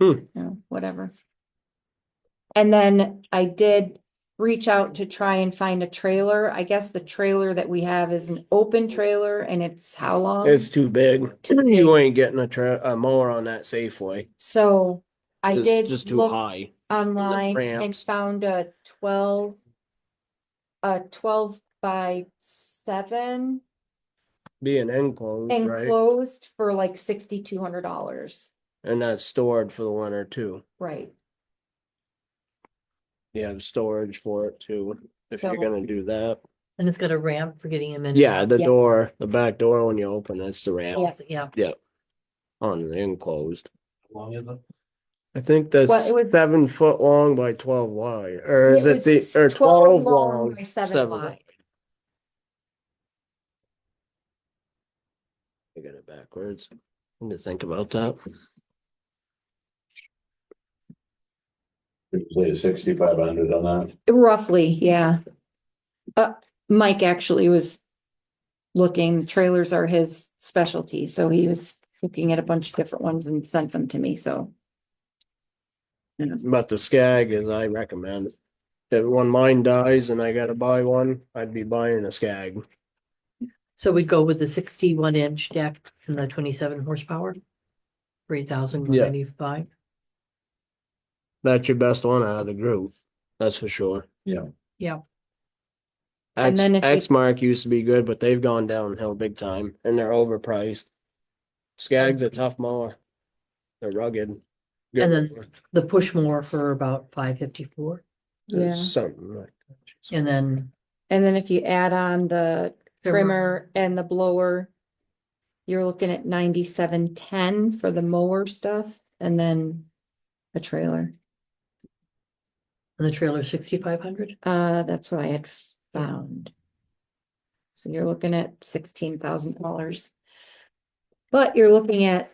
Hmm. you know, whatever. And then I did reach out to try and find a trailer. I guess the trailer that we have is an open trailer and it's how long? It's too big. You ain't getting a tra- a mower on that Safeway. So I It's did Just too look high. online and ramps. found a twelve, a twelve by seven Being enclosed, right? enclosed for like sixty-two hundred dollars. And that's stored for the winter too. Right, You have storage for it too, if you're So- gonna do that. And it's got a ramp for getting him in. and Yeah, the Yeah. door, the back door when you open, that's the ramp out. Yeah, on the enclosed. Long as the- I think that's Well, it was- seven foot long by twelve wide, or is It it the, was or 12 twelve long long? by seven wide. I got it backwards. I Need to think about that. Did you say sixty-five hundred on roughly, yeah. Uh, Mike actually was looking, trailers are his specialty, so he was looking at a bunch of different ones and sent them to me, so. But the Skag is I recommend. If when mine dies and I gotta buy one, I'd be buying a Skag. so we'd go with the sixty-one inch deck and the twenty-seven horsepower. Three thousand one ninety-five. That's your best one out of the group, that's for sure. Yeah. Yeah. And X, then if we- X Mark used to be good, but they've gone downhill big time and they're overpriced. Skag's a tough mower. They're rugged. Good And then- mower. The push more for about five fifty-four. Yeah. Something like. that. And then And then if you add on the Trimmer. trimmer and the blower, you're looking at ninety-seven ten for the mower stuff and then a trailer. and the trailer sixty-five hundred. Uh, that's what I had found. So you're looking at sixteen thousand dollars. But you're looking at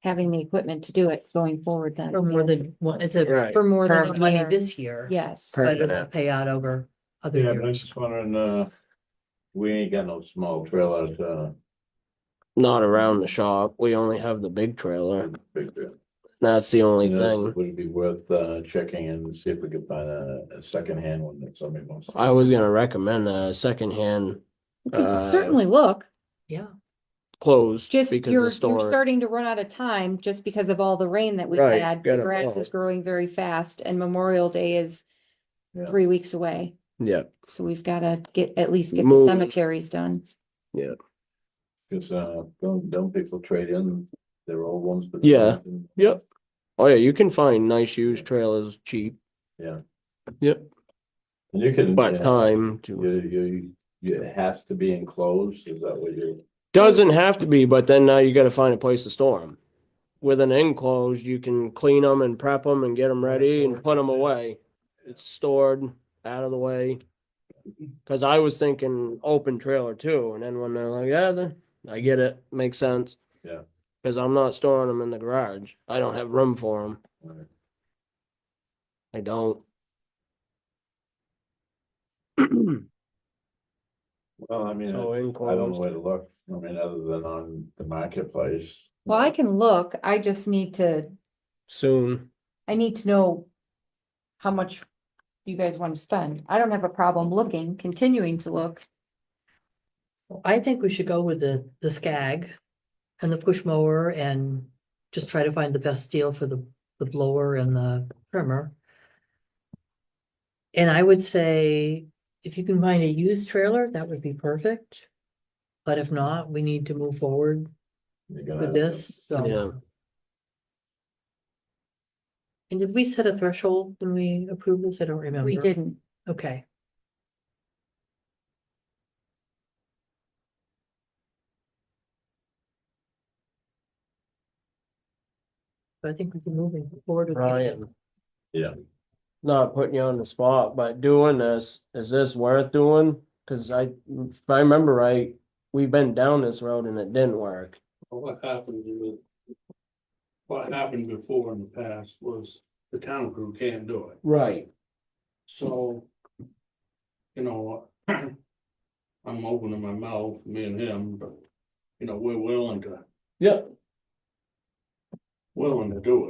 having the equipment to do it going forward then. Or more yes. than one, it's a Right. For more more than. than a money year. this year. Yes, Per- But it'll pay out over other that? Yeah, but I was years. just wondering, uh, we ain't got no small trailers, uh, Not around the shop. We only have the big uh, trailer. big deal. That's the only You know, thing. Would it be worth, uh, checking and see if we could find a, a secondhand one that somebody wants? I was gonna recommend a secondhand you can Uh, certainly look, Yeah, closed just because you're, the you're store. starting to run out of time just because of all the rain that we've Right, had. The gotta grass plow. is growing very fast and Memorial Day is Yeah. three weeks away. Yeah, So we've gotta get, at least get the Move. cemeteries done. Cause, uh, don't, don't people trade in their old ones? for the Yeah. new ones? yep. Oh yeah, you can find nice used trailers cheap. Yeah. Yep, And you can. but yeah, time to, You, you, you, it has to be enclosed, is that what you? doesn't have to be, but then now you gotta find a place to store them. With an enclosed, you can clean them and prep them and get them ready and put them away. It's stored out of the way. Cause I was thinking open trailer too, and then when they're like, yeah, then I get it, makes sense. Yeah. Cause I'm not storing them in the garage. I don't have room for them. uh, I don't. Well, I mean, I So I don't know enclosed. where to look, I mean, other than on the marketplace. Well, I can look, I just need to Soon. I need to know how much you guys want to spend. I don't have a problem looking, continuing to look. Well, I think we should go with the, the Skag and the push mower and just try to find the best deal for the, the blower and the trimmer. And I would say if you can find a used trailer, that would be perfect. But if not, we need to move forward You're gonna with have to- this, Yeah. so. And did we set a threshold when we approved this? I don't remember. We didn't. Okay. So I think we can move it forward. with that. Ryan, Yeah, not putting you on the spot, but doing this, is this worth doing? Cause I, if I remember right, we've been down this road and it didn't work. Well, What happened in the, what happened before in the past was the town crew can't do it, Right. so. You know, I'm opening my mouth, me and him, but, you know, we're willing to, Yep. willing to do it.